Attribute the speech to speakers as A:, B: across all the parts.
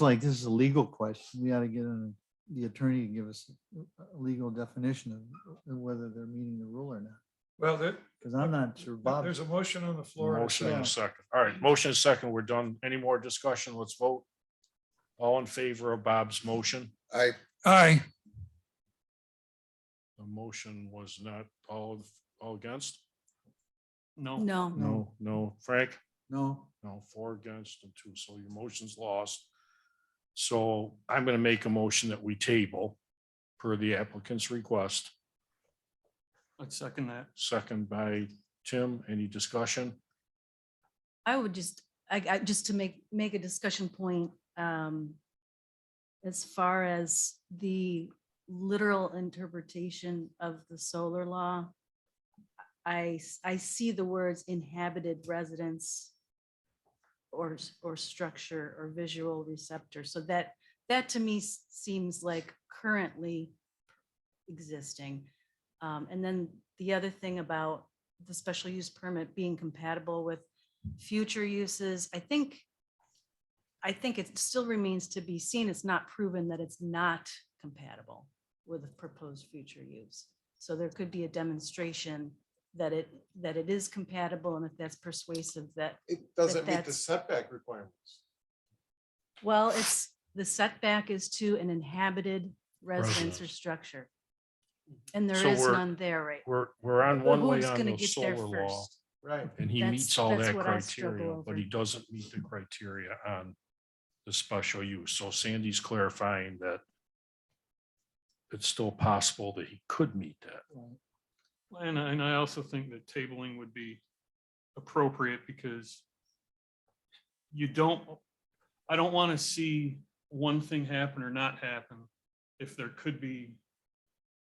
A: like this is a legal question. We ought to get an- the attorney to give us a a legal definition of whether they're meeting the rule or not,
B: Well, there,
A: because I'm not sure Bob.
B: there's a motion on the floor. and a
C: Motion and a
B: second.
C: second. All right, motion and second. We're done. Any more discussion? Let's vote. All in favor of Bob's motion?
D: I,
B: Aye,
C: The motion was not all, of- all against? No.
E: No,
C: No, no. Frank?
A: No,
C: No, four against and two. So your motion's lost. So I'm going to make a motion that we table per the applicant's request.
F: I'd second that.
C: Second by Tim. Any discussion?
E: I would just, I, I, just to make, make a discussion point, um, as far as the literal interpretation of the solar law, I, s- I see the words inhabited residence or, s- or structure or visual receptor. So that, that to me s- seems like currently existing. Um, and then the other thing about the special use permit being compatible with future uses, I think, I think it still remains to be seen. It's not proven that it's not compatible with a proposed future use. So there could be a demonstration that it, that it is compatible, and if that's persuasive, that,
D: it doesn't meet the
E: that's-
D: setback requirements.
E: well, it's, the setback is to an inhabited residence or
C: Residence.
E: structure. And there
C: So
E: is
C: we're-
E: none there, right?
C: We're, we're on
E: But
C: one way
E: who's
C: on
E: gonna
C: the
E: get there
C: solar law.
E: first?
D: Right.
C: And he
E: That's-
C: meets all
E: that's
C: that
E: what I struggle
C: criteria, but
E: over.
C: he doesn't meet the criteria on the special use. So Sandy's clarifying that it's still possible that he could meet that.
F: And, I- and I also think that tabling would be appropriate because you don't, I don't want to see one thing happen or not happen if there could be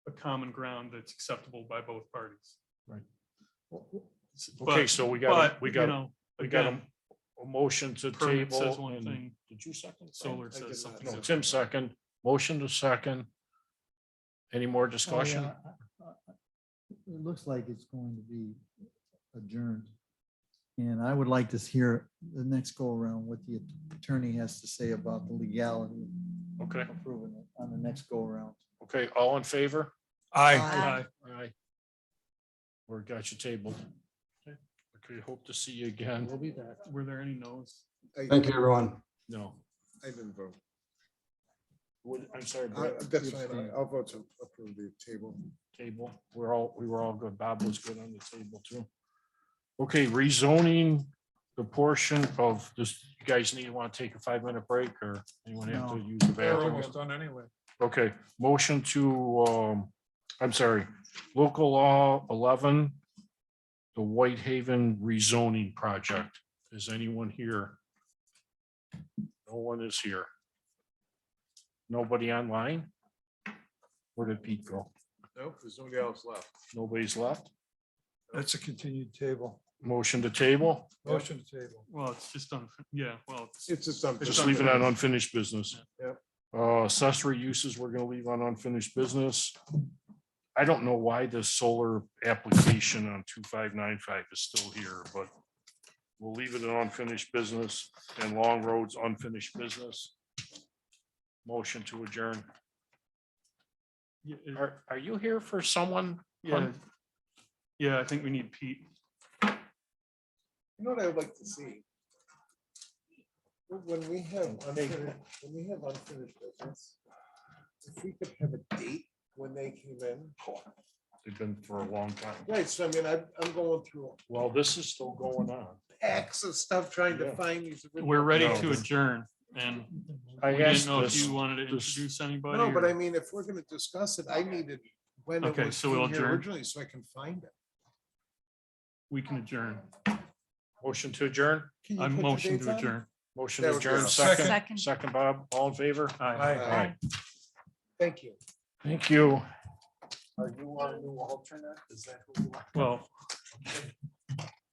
F: a common ground that's acceptable by both parties.
C: Okay,
F: But-
C: so we got,
F: But,
C: we
F: you
C: got,
F: know,
C: we got a,
F: again,
C: a motion to
F: permit
C: table.
F: says one
C: and-
F: thing,
C: Did you second? Frank?
F: solar
D: I did
F: says something.
D: not.
C: No,
F: different.
C: Tim second, motion to second. Any more discussion?
A: Oh, yeah, I- I- I- It looks like it's going to be adjourned. And I would like to hear the next go around what the attorney has to say about the legality
C: Okay,
A: of approving it on the next go around.
C: okay, all in favor?
B: aye.
F: Aye.
C: Aye. Or got you tabled. Okay, hope to see you again. We'll be back.
F: Were there any no's?
D: I,
G: Thank you, everyone.
C: No.
D: I didn't vote.
C: What, I'm sorry,
D: I-
C: Brett,
D: Uh, That's
C: you
D: fine. I-
C: abstained.
D: I'll vote to approve the table.
C: table, we're all, we were all good, Bob was good on the table too. Okay, rezoning the portion of this, you guys need to want to take a five minute break or anyone have to
A: No.
C: use the
B: They're
C: bathroom?
B: almost done anyway.
C: Okay, motion to, um, I'm sorry, local law eleven, the Whitehaven rezoning project. Is anyone here? No one is here. Nobody online? Where did Pete go?
D: Nope, there's nobody else left.
C: Nobody's left?
B: That's a continued table.
C: Motion to table?
B: Motion to table.
F: Well, it's just on, yeah, well, it's-
D: It's just something.
C: Just leave it on unfinished business.
D: Yep.
C: Uh, accessory uses, we're gonna leave on unfinished business. I don't know why this solar application on two five nine five is still here, but we'll leave it in unfinished business and Long Road's unfinished business. Motion to adjourn.
F: yeah, it-
C: Are, are you here for someone?
F: yeah. Yeah, I think we need Pete.
D: You know what I would like to see? When we have unfinished, when we have unfinished business, if we could have a date when they came in.
C: They've been for a long time.
D: Right, so I mean, I, I'm going through
C: Well, this is still going on.
D: packs of stuff trying to
C: Yeah.
D: find these. original-
F: We're ready
C: No.
F: to adjourn and
C: I
F: we didn't
C: asked
F: know if
C: this,
F: you wanted to
C: this-
F: introduce anybody.
D: No, but
F: or-
D: I mean, if we're gonna discuss it, I needed when it
F: Okay,
D: was
F: so we'll
D: in here
F: adjourn.
D: originally, so I can find it.
F: We can adjourn.
C: motion to adjourn,
D: Can you
F: I
D: put the
F: motion
D: dates
F: to
D: on?
F: adjourn.
C: motion
D: That
C: to
D: would be
C: adjourn,
D: awesome.
C: second,
E: Second.
C: second, Bob, all in favor?
F: Aye.
D: Aye. Thank you.
C: Thank you.
D: Are you our new alternate? Is that who you are?
F: Well,